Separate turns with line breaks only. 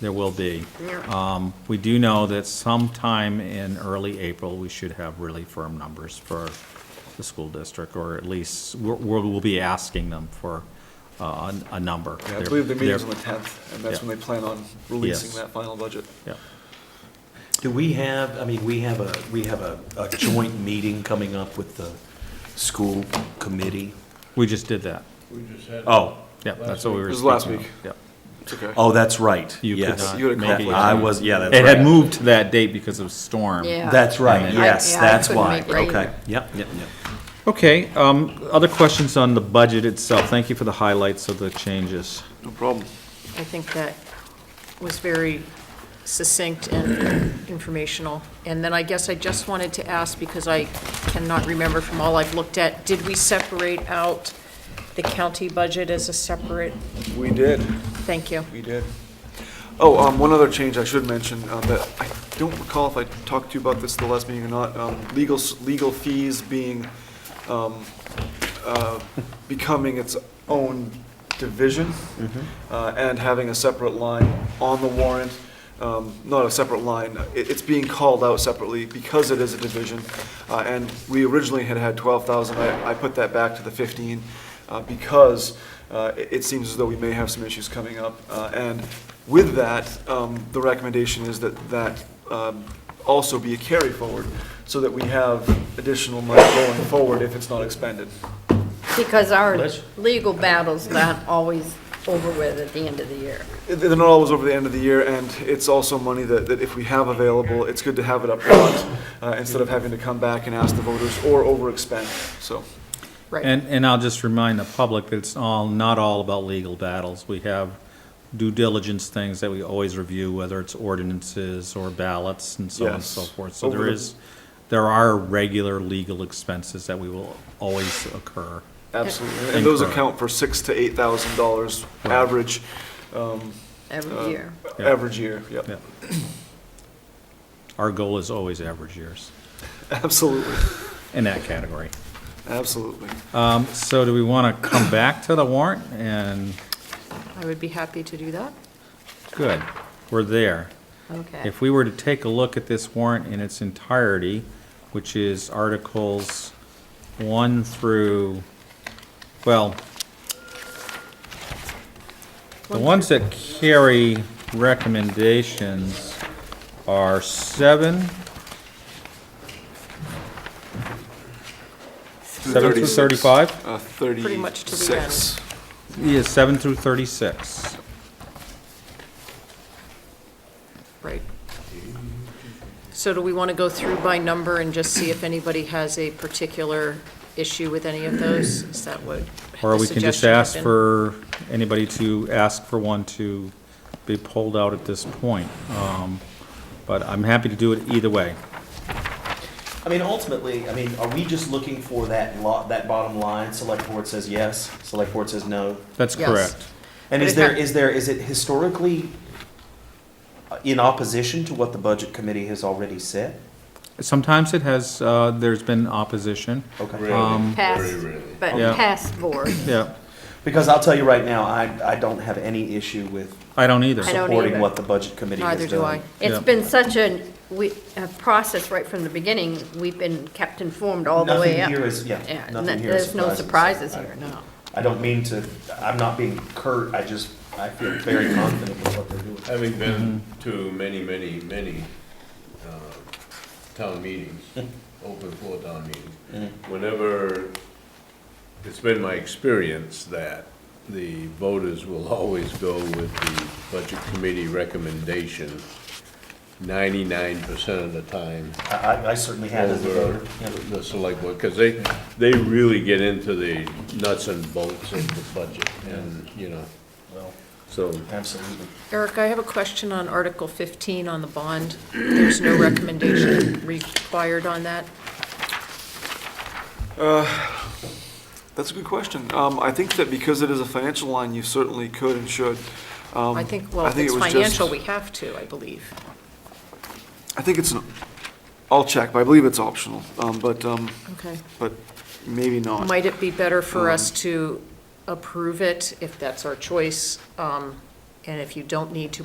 There will be.
Yeah.
Um, We do know that sometime in early April, we should have really firm numbers for the school district, or at least, we're- we're- we'll be asking them for uh, a a number.
Yeah, I
They're-
believe the meeting's on the
they're-
10th, and that's
Yeah.
when they plan on releasing
Yes.
that final budget.
yeah.
Do we have, I mean, we have a, we have a, a joint meeting coming up with the school committee?
We just did that.
We just had.
Oh,
Yeah, that's what we were.
It was last
speaking
week.
of. Yeah.
It's okay.
oh, that's right,
You could
yes.
not
You had a
make it.
conflict.
I was, yeah, that's
It had
right.
moved to that date because of storm.
Yeah.
That's right,
And
then-
yes,
I- yeah, I
that's
couldn't
why,
make it either.
okay, yep, yep, yep.
Okay, um, other questions on the budget itself? Thank you for the highlights of the changes.
No problem.
I think that was very succinct and informational. And then I guess I just wanted to ask, because I cannot remember from all I've looked at, did we separate out the county budget as a separate?
We did,
Thank you.
we did. Oh, um, one other change I should mention, uh, that I don't recall if I talked to you about this at the last meeting or not, um, legal, s- legal fees being, um, uh, becoming its own division, uh, and having a separate line on the warrant, um, not a separate line, it, it's being called out separately because it is a division. Uh, and we originally had had twelve thousand, I, I put that back to the fifteen, uh, because, uh, it, it seems as though we may have some issues coming up. Uh, and with that, um, the recommendation is that, that, um, also be a carry forward, so that we have additional money going forward if it's not expended.
Because our
Liz?
legal battle's not always over with at the end of the year.
They're not always over the end of the year, and it's also money that, that if we have available, it's good to have it up front, uh, instead of having to come back and ask the voters or overexpend, so.
Right.
And, and I'll just remind the public that it's all, not all about legal battles. We have due diligence things that we always review, whether it's ordinances or ballots and so on and so
Yes.
forth. So there
Over the-
is, there are regular legal expenses that we will always occur.
Absolutely, and those
Incorrect.
account for six to eight thousand dollars average, um,
Uh,
Every year.
Yeah.
average year, yep,
Yeah. Our goal is always average years
absolutely,
in that category.
absolutely.
Um, so do we want to come back to the warrant? And,
I would be happy to do that.
good, we're there.
Okay.
If we were to take a look at this warrant in its entirety, which is Articles 1 through, well, the ones that carry recommendations are 7, 7 through 35?
Uh, thirty-six.
Pretty much to the end.
Yeah, 7 through 36.
Right. So do we want to go through by number and just see if anybody has a particular issue with any of those? Is that what
Or
the
we can just
suggestion had
ask
been?
for, anybody to ask for one to be pulled out at this point. Um, But I'm happy to do it either way.
I mean, ultimately, I mean, are we just looking for that lot, that bottom line? Select board says yes, select board says no.
That's
Yes.
correct.
And
But
is
it
there,
ha-
is there, is it historically uh, in opposition to what the budget committee has already said?
Sometimes it has, uh, there's been opposition.
Okay.
Um,
Rarely, very
Pass,
rarely.
but
Yeah.
past board.
Yeah,
Because I'll tell you right now, I, I don't have any issue with
I don't either.
I don't
supporting
either.
what the budget committee has done.
Neither do I.
Yeah.
It's been such a, we, a process right from the beginning. We've been kept informed all the way
Nothing
up.
here is- yeah,
and
nothing
that-
here is
There's no
surprises.
surprises here, no.
I don't mean to, I'm not being curt, I just, I feel very confident with what they're doing.
Having been to many, many, many uh, town meetings, open floor town meetings, whenever, it's been my experience that the voters will always go with the budget committee recommendation ninety-nine percent of the time
I- I, I certainly have as a
over
voter. yeah.
the select board, because they, they really get into the nuts and bolts of the budget, and, you know,
Well,
so.
Absolutely.
Eric, I have a question on Article 15 on the bond. There's no recommendation required on that.
That's a good question. Um, I think that because it is a financial line, you certainly could and should. Um,
I think, well,
I
if
think
it's
it was just-
financial, we have to, I believe.
I think it's, an- I'll check, but I believe it's optional, um, but, um,
Okay.
but maybe not.
Might it be better for us to approve it if that's our choice? um, And if you don't need to